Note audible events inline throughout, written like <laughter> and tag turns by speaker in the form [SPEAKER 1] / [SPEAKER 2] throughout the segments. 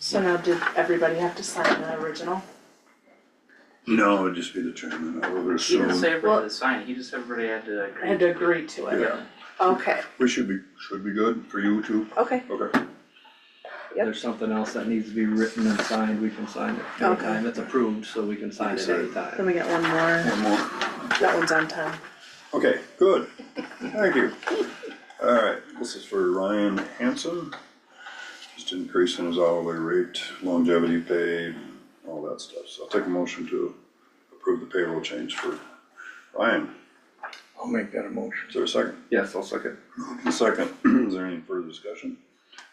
[SPEAKER 1] So now did everybody have to sign the original?
[SPEAKER 2] No, it'd just be the chairman, Oh, I would
[SPEAKER 3] He didn't
[SPEAKER 2] assume.
[SPEAKER 3] say
[SPEAKER 1] Well-
[SPEAKER 3] everybody had to sign, he just said everybody had to agree.
[SPEAKER 1] I had to agree to it.
[SPEAKER 2] Yeah,
[SPEAKER 1] Okay,
[SPEAKER 2] we should be, should be good for you too.
[SPEAKER 1] okay,
[SPEAKER 2] Okay,
[SPEAKER 1] Yep.
[SPEAKER 4] there's something else that needs to be written and signed, we can sign it
[SPEAKER 1] Okay.
[SPEAKER 4] anytime, it's approved, so we can sign it
[SPEAKER 2] Sign it.
[SPEAKER 1] then
[SPEAKER 4] anytime.
[SPEAKER 1] we got one more.
[SPEAKER 2] one more.
[SPEAKER 1] That one's on time.
[SPEAKER 2] Okay, good. Thank you. Alright, this is for Ryan Hanson. Just increasing his hourly rate, longevity pay, all that stuff. So I'll take a motion to approve the payroll change for Ryan.
[SPEAKER 5] I'll make that a motion.
[SPEAKER 2] Is there a second?
[SPEAKER 5] Yes, I'll second.
[SPEAKER 2] Second, <clears throat> is there any further discussion?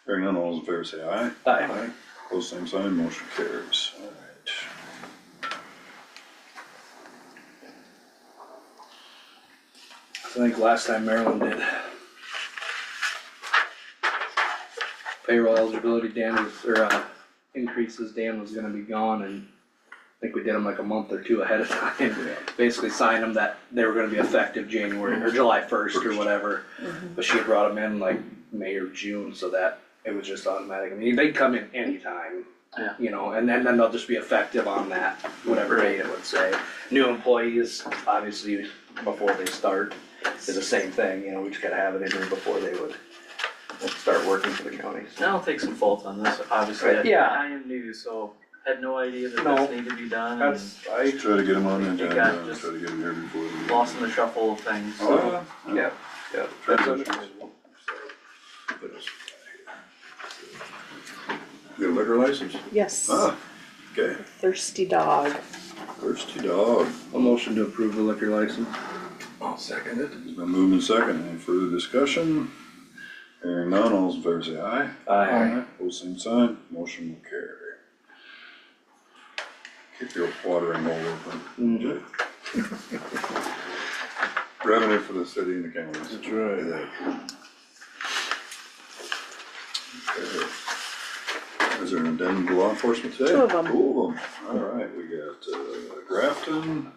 [SPEAKER 2] Hearing none, all those in favor say aye.
[SPEAKER 4] Aye.
[SPEAKER 2] Close same sign, motion carries. Alright.
[SPEAKER 4] I think last time Maryland did. Payroll eligibility, Dan was, or, uh, increases, Dan was gonna be gone and I think we did them like a month or two ahead of <laughs> time. Basically signed them that they were gonna be effective January or July first or
[SPEAKER 2] First.
[SPEAKER 4] whatever. But she had brought them in like May or June, so that it was just automatic. I mean, they come in anytime.
[SPEAKER 3] Yeah.
[SPEAKER 4] You know, and then, then they'll just be effective on that, whatever date it would say. New employees, obviously, before they start, is the same thing, you know, we just gotta have it in there before they would start working for the county.
[SPEAKER 3] I'll take some fault on this, obviously, I-
[SPEAKER 4] Yeah.
[SPEAKER 3] I am new, so had no idea that
[SPEAKER 4] No.
[SPEAKER 3] this needed to be done and
[SPEAKER 4] That's, I,
[SPEAKER 2] Try to get him on the
[SPEAKER 3] You
[SPEAKER 2] agenda,
[SPEAKER 3] got
[SPEAKER 2] and
[SPEAKER 3] just
[SPEAKER 2] try to get him here before. the meeting.
[SPEAKER 3] lost in the shuffle of things, so.
[SPEAKER 2] Oh,
[SPEAKER 4] yeah, yeah, that's understandable.
[SPEAKER 2] You got a liquor license?
[SPEAKER 1] Yes,
[SPEAKER 2] Ah, okay,
[SPEAKER 1] thirsty dog.
[SPEAKER 2] thirsty dog.
[SPEAKER 4] A motion to approve the liquor license.
[SPEAKER 5] I'll second it.
[SPEAKER 2] It's been moved and second. Any further discussion? Hearing none, all those in favor say aye.
[SPEAKER 5] Aye.
[SPEAKER 2] Pose same sign, motion will carry. Keep your watering hole
[SPEAKER 3] Mm-hmm.
[SPEAKER 2] open. Jay. Revenue for the city and the county. That's right. Is there an addendum to law enforcement today?
[SPEAKER 1] Two of 'em.
[SPEAKER 2] Two of them, all right, we got uh, Grafton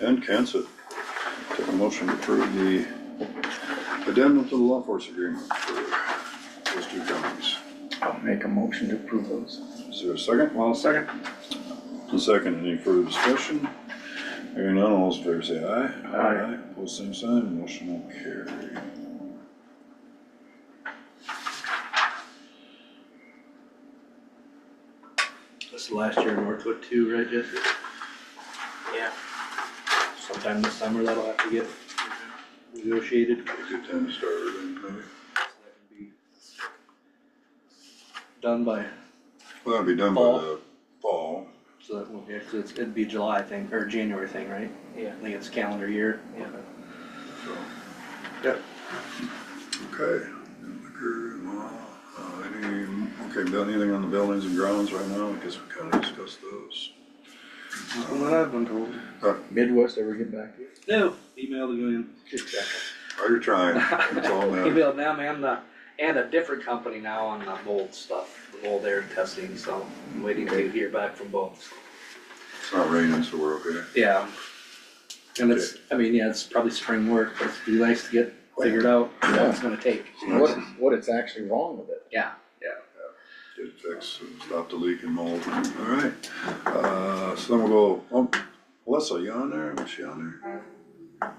[SPEAKER 2] and Kansas. Take a motion to approve the addendum to the law enforcement agreement for those two counties.
[SPEAKER 5] I'll make a motion to approve those.
[SPEAKER 2] Is there a second?
[SPEAKER 5] Well, second.
[SPEAKER 2] A second, any further discussion? Hearing none, all those in favor say aye.
[SPEAKER 5] Aye.
[SPEAKER 2] Pose same sign, motion will carry.
[SPEAKER 4] This is last year in Northwood too, right, Jesse?
[SPEAKER 3] Yeah.
[SPEAKER 4] Sometime this summer that'll have to get negotiated.
[SPEAKER 2] Good time to start, everything, maybe.
[SPEAKER 4] Done by,
[SPEAKER 2] Well, that'll be done by the fall.
[SPEAKER 4] so that won't be, because it's, it'd be July thing, or January thing, right?
[SPEAKER 3] Yeah.
[SPEAKER 4] I think it's calendar year.
[SPEAKER 3] Yeah.
[SPEAKER 4] Yep.
[SPEAKER 2] Okay. Liquor, law, uh, any, okay, done anything on the buildings and grounds right now? I guess we kind of discussed those.
[SPEAKER 5] From what I've been told.
[SPEAKER 2] Huh.
[SPEAKER 5] Midwest ever get back to you?
[SPEAKER 4] No, email to go in. Good check.
[SPEAKER 2] Are you Oh, trying? That's
[SPEAKER 4] <laughs>
[SPEAKER 2] all that matters.
[SPEAKER 4] Emailed them and the, and a different company now on the mold stuff, the mold air testing, so I'm waiting to hear back from both.
[SPEAKER 2] It's not raining, so we're okay.
[SPEAKER 4] Yeah. And it's, I mean, yeah, it's probably spring work, but it'd be nice to get figured out what it's gonna take.
[SPEAKER 5] What, what it's actually wrong with it?
[SPEAKER 4] Yeah,
[SPEAKER 2] Get it fixed, stop the leak and mold. All right. Uh, so then we'll go, oh, Melissa, you on there? Was she on there?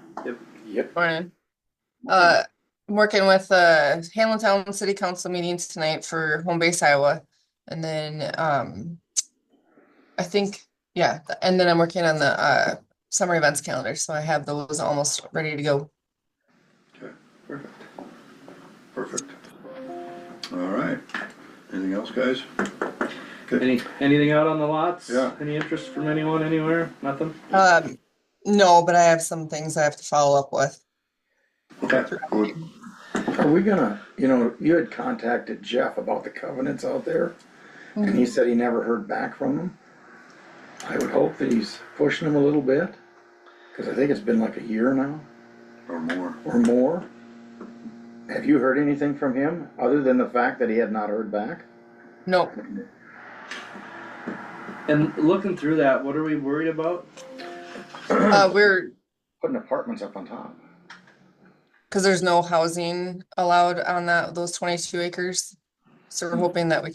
[SPEAKER 5] Yep.
[SPEAKER 6] Morning. Uh, I'm working with uh Hamlin Town City Council meetings tonight for Home Base Iowa. And then um I think, yeah, th- and then I'm working on the uh summer events calendar, so I have those almost ready to go.
[SPEAKER 2] Perfect. Perfect. All right. Anything else, guys?
[SPEAKER 4] Any, anything out on the lots?
[SPEAKER 2] Yeah.
[SPEAKER 4] Any interest from anyone anywhere? Nothing?
[SPEAKER 6] Um, no, but I have some things I have to follow up with.
[SPEAKER 2] Okay. Good.
[SPEAKER 5] Are we gonna, you know, you had contacted Jeff about the covenants out there, and he said he never heard back from them. I would hope that he's pushing them a little bit, cause I think it's been like a year now.
[SPEAKER 2] Or more.
[SPEAKER 5] or more. Have you heard anything from him, other than the fact that he had not heard back?
[SPEAKER 6] Nope,
[SPEAKER 4] And looking through that, what are we worried about?
[SPEAKER 6] uh, we're,
[SPEAKER 5] Putting apartments up on top.
[SPEAKER 6] because there's no housing allowed on that, those twenty-two acres. So we're hoping that we